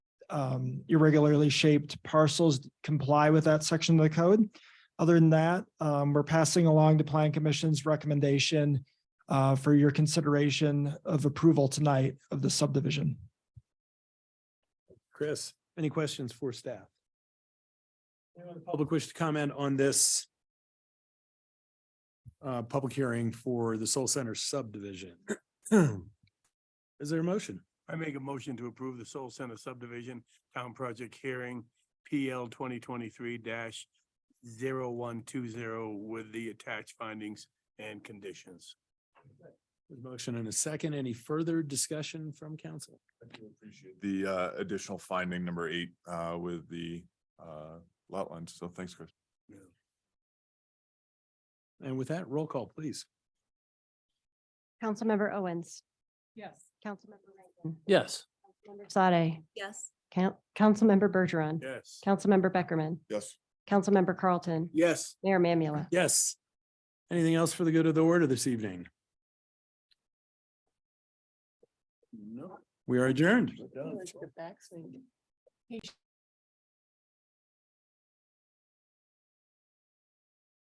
um, irregularly shaped parcels comply with that section of the code. Other than that, um, we're passing along to Plan Commission's recommendation uh, for your consideration of approval tonight of the subdivision. Chris, any questions for staff? Anyone in the Public wish to comment on this uh, public hearing for the Soul Center subdivision? Is there a motion? I make a motion to approve the Soul Center subdivision town project hearing PL twenty twenty-three 120 with the attached findings and conditions. There's a Motion and a second. Any further discussion from council? the uh, additional finding number eight uh, with the uh, lot lines. So thanks, Chris. And with that, roll call, please. Councilmember Owens. Yes. Councilmember Rankin. Yes. Councilmember Sade. Yes. Count, Councilmember Bergeron. Yes. Councilmember Beckerman. Yes. Councilmember Carlton. Yes. Mayor Mamula. Yes. Anything else for the good of the order this evening? No. We are adjourned.